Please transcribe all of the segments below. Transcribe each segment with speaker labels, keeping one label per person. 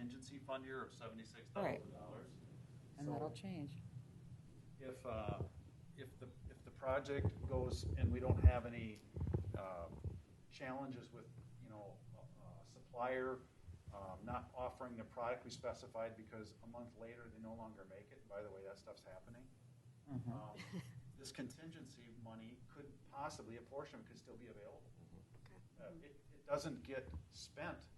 Speaker 1: emergency fund here of seventy-six thousand dollars.
Speaker 2: and that'll change.
Speaker 1: If, uh, if the, if the project goes and we don't have any, uh, challenges with, you know, uh, supplier, um, not offering the product we specified because a month later they no longer make it, by the way, that stuff's happening.
Speaker 2: Mhm.
Speaker 1: um, This contingency money could possibly, a portion could still be available.
Speaker 2: Mm-hmm.
Speaker 1: Uh, It, it doesn't get spent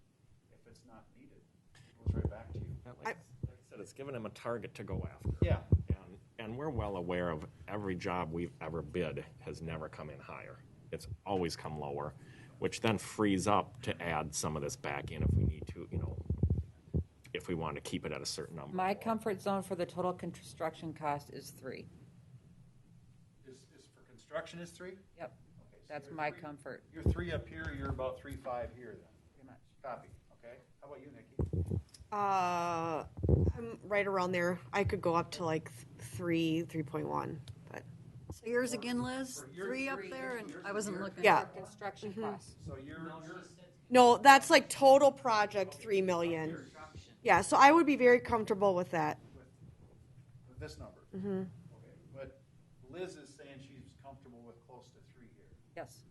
Speaker 1: if it's not needed. It goes right back to you.
Speaker 3: Yeah, Like like I said, it's given them a target to go after.
Speaker 1: Yeah.
Speaker 3: And, and we're well aware of every job we've ever bid has never come in higher. It's always come lower, which then frees up to add some of this back in if we need to, you know, if we want to keep it at a certain number.
Speaker 2: My comfort zone for the total construction cost is three.
Speaker 1: Is, is for construction is three?
Speaker 2: Yep,
Speaker 1: Okay, so
Speaker 2: that's
Speaker 1: you're
Speaker 2: my
Speaker 1: three-
Speaker 2: comfort,
Speaker 1: You're three up here, you're about three, five here then.
Speaker 2: pretty much.
Speaker 1: Copy, okay? How about you, Nikki?
Speaker 4: Uh, I'm right around there. I could go up to like th- three, three point one, but
Speaker 5: So yours again, Liz?
Speaker 1: For yours-
Speaker 5: Three up
Speaker 1: Three.
Speaker 5: there, and
Speaker 1: Yours
Speaker 5: I
Speaker 1: is
Speaker 5: wasn't
Speaker 1: here.
Speaker 5: looking. Mm-hmm.
Speaker 4: Yeah.
Speaker 2: For Construction costs.
Speaker 1: So you're, you're,
Speaker 4: no, that's like total project three million. Yeah, so I would be very comfortable with that.
Speaker 1: with this number. Okay, But Liz is saying she's comfortable with close to three here.
Speaker 2: Yes,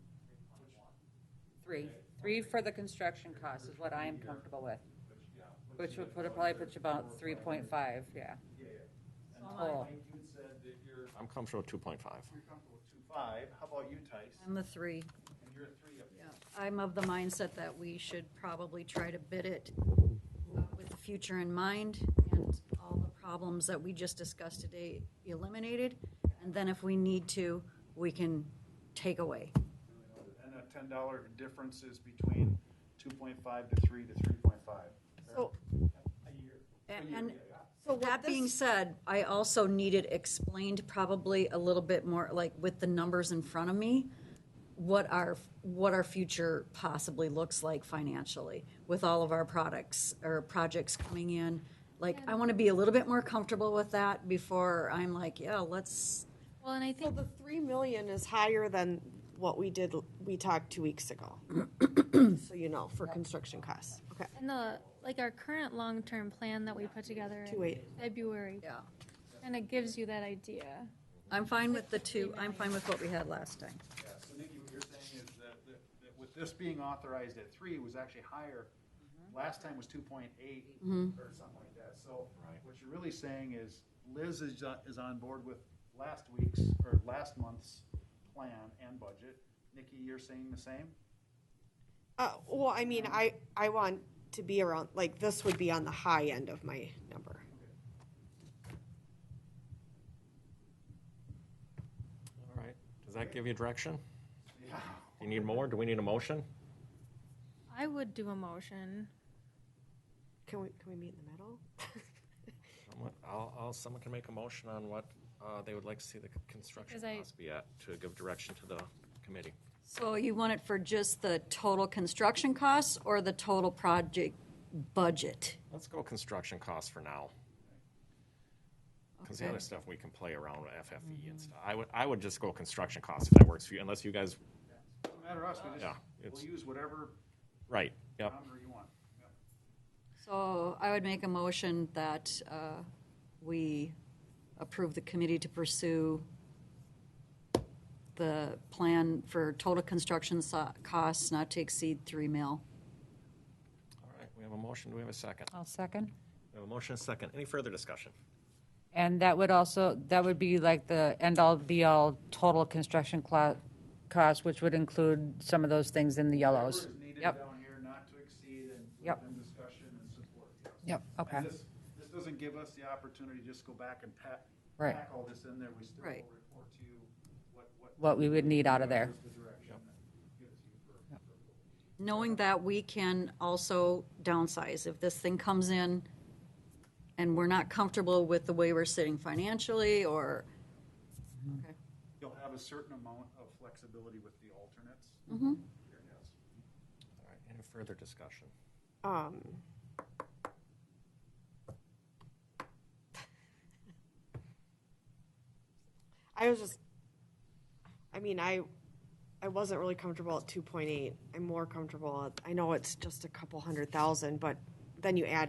Speaker 2: three, three for the construction cost is what I am comfortable with,
Speaker 1: Which, yeah,
Speaker 2: which would put, probably put you about three point five, yeah.
Speaker 1: Yeah, yeah. And
Speaker 2: So am I.
Speaker 1: Mike, you had said that you're,
Speaker 3: I'm comfortable with two point five.
Speaker 1: you're comfortable with two, five. How about you, Tice?
Speaker 5: I'm the three.
Speaker 1: And you're at three up here.
Speaker 5: Yeah. I'm of the mindset that we should probably try to bid it uh, with the future in mind and all the problems that we just discussed today eliminated. And then if we need to, we can take away.
Speaker 1: And a ten dollar difference is between two point five to three to three point five.
Speaker 4: So,
Speaker 1: A year.
Speaker 5: A-
Speaker 1: A year,
Speaker 5: and-
Speaker 1: yeah, yeah.
Speaker 4: so what
Speaker 5: That being
Speaker 4: this,
Speaker 5: said, I also needed explained probably a little bit more, like with the numbers in front of me, what our, what our future possibly looks like financially with all of our products or projects coming in. Like, I want to be a little bit more comfortable with that before I'm like, yeah, let's,
Speaker 6: Well, and I
Speaker 4: so
Speaker 6: think,
Speaker 4: the three million is higher than what we did, we talked two weeks ago. So you know, for construction costs. Okay,
Speaker 6: and the, like our current long-term plan that we put together
Speaker 4: two
Speaker 6: in
Speaker 4: eight.
Speaker 6: February
Speaker 5: yeah.
Speaker 6: kind of gives you that idea.
Speaker 5: I'm fine with the two, I'm fine with what we had last time.
Speaker 1: Yeah, so Nikki, what you're saying is that, that, that with this being authorized at three, it was actually higher. Last time was two point eight
Speaker 2: Mm-hmm.
Speaker 1: or something like that. So
Speaker 3: Right.
Speaker 1: what you're really saying is Liz is, on- is on board with last week's or last month's plan and budget. Nikki, you're saying the same?
Speaker 4: Uh, well, I mean, I, I want to be around, like, this would be on the high end of my number.
Speaker 3: All right. Does that give you direction?
Speaker 1: Yeah.
Speaker 3: Do you need more? Do we need a motion?
Speaker 6: I would do a motion.
Speaker 4: Can we, can we meet in the middle?
Speaker 3: Someone- I'll, I'll, someone can make a motion on what, uh, they would like to see the construction
Speaker 6: Because I-
Speaker 3: cost be at to give direction to the committee.
Speaker 5: So you want it for just the total construction costs or the total project budget?
Speaker 3: Let's go construction costs for now. Because the
Speaker 5: Okay.
Speaker 3: other stuff we can play around with FFE and stuff. I would, I would just go construction costs if that works for you, unless you guys,
Speaker 1: Doesn't matter to us, we
Speaker 3: Yeah,
Speaker 1: just,
Speaker 3: it's-
Speaker 1: we'll use whatever
Speaker 3: right, yep.
Speaker 1: number you want. Yep.
Speaker 5: So I would make a motion that uh, we approve the committee to pursue the plan for total construction so- costs not to exceed three mil.
Speaker 3: All right, we have a motion, do we have a second?
Speaker 2: I'll second.
Speaker 3: We have a motion, and a second. Any further discussion?
Speaker 2: And that would also, that would be like the end-all, be-all total construction clo- cost, which would include some of those things in the yellows.
Speaker 1: Whatever is needed
Speaker 2: Yep,
Speaker 1: down here, not to exceed and
Speaker 2: Yep.
Speaker 1: within discussion and support. yes.
Speaker 2: Yep,
Speaker 1: And
Speaker 2: okay.
Speaker 1: This this doesn't give us the opportunity to just go back and pack,
Speaker 2: Right.
Speaker 1: pack all this in there. We still will
Speaker 5: Right.
Speaker 1: report to you what, what.
Speaker 2: What we would need out of there.
Speaker 1: is the direction that gives you for- for-
Speaker 5: Knowing that we can also downsize. If this thing comes in and we're not comfortable with the way we're sitting financially or,
Speaker 1: You'll have a certain amount of flexibility with the alternates. Here, yes.
Speaker 3: All right, any further discussion?
Speaker 4: Um. I was just, I mean, I, I wasn't really comfortable at two point eight. I'm more comfortable at, I know it's just a couple hundred thousand, but then you add